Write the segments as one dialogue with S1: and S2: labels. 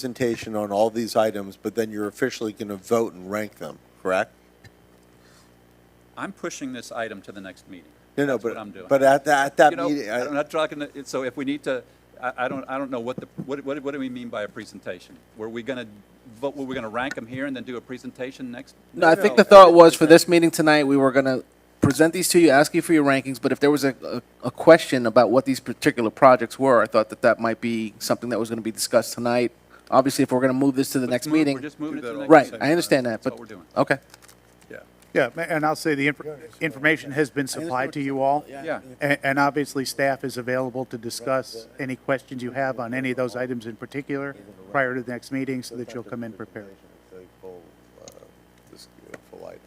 S1: presentation on all these items, but then you're officially going to vote and rank them, correct?
S2: I'm pushing this item to the next meeting.
S1: No, no,
S2: That's what I'm
S1: but,
S2: doing.
S1: but at that, at that
S2: You know,
S1: meeting,
S2: I'm
S1: I-
S2: not talking, to- so if we need to, I, I don't, I don't know what the, what, what what do we mean by a presentation? Were we going to vote, were we going to rank them here and then do a presentation next?
S3: No, I
S1: No,
S3: think
S1: no.
S3: the thought was for this meeting tonight, we were gonna present these to you, ask you for your rankings, but if there was a, a, a question about what these particular projects were, I thought that that might be something that was gonna be discussed tonight. Obviously, if we're gonna move this to the
S2: Let's
S3: next
S2: move-
S3: meeting.
S2: We're just moving it to the next.
S3: Right,
S2: meeting.
S3: I understand that,
S2: That's
S3: but,
S2: what we're doing.
S3: okay.
S2: Yeah.
S4: Yeah, ma- and I'll say the inf- information has been supplied to you all.
S2: Yeah.
S4: And, and obviously, staff is available to discuss any questions you have on any of those items in particular prior to the next meeting so that you'll come in prepared.
S5: This full item.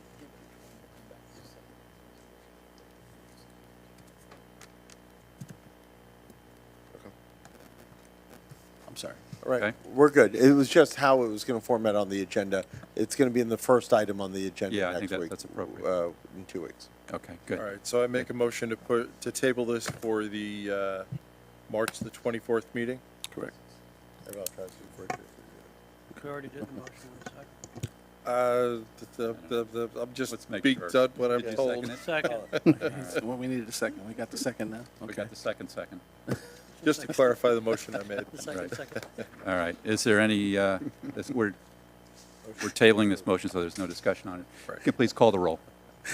S3: I'm sorry.
S1: all right,
S2: Okay.
S1: we're good. It was just how it was going to format on the agenda. It's going to be in the first item on the agenda
S2: Yeah, I think
S1: next
S2: that-
S1: week,
S2: that's appropriate.
S1: Uh, in two weeks.
S2: Okay, good.
S5: All right, so I make a motion to put, to table this for the uh, March the 24th meeting? Correct.
S6: We already did the motion in a second.
S5: Uh, the, the, the, I'm just
S2: Let's make
S5: beat
S2: sure.
S5: done what I'm
S2: Did you
S5: told.
S2: second it?
S6: Second,
S3: Well, we needed a second, we got the second now,
S2: We
S3: okay.
S2: got the second second.
S5: Just to clarify the motion I made.
S6: second, second.
S2: All right, is there any, uh, this- we're, we're tabling this motion, so there's no discussion on it. Can you Please call the roll.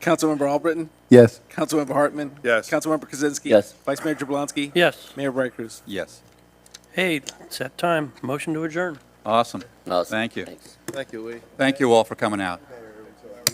S3: Councilmember Albritton?
S7: Yes.
S3: Councilmember Hartman?
S5: Yes.
S3: Councilmember Kozinski?
S7: Yes.
S3: Vice Mayor Jablonski?
S6: Yes.
S3: Mayor Bright Cruz?
S2: Yes.
S6: Hey, it's that time. Motion to adjourn.
S2: Awesome.
S7: Awesome.
S2: Thank you.
S7: Thanks.
S5: Thank you, Lee.
S2: Thank you all for coming out.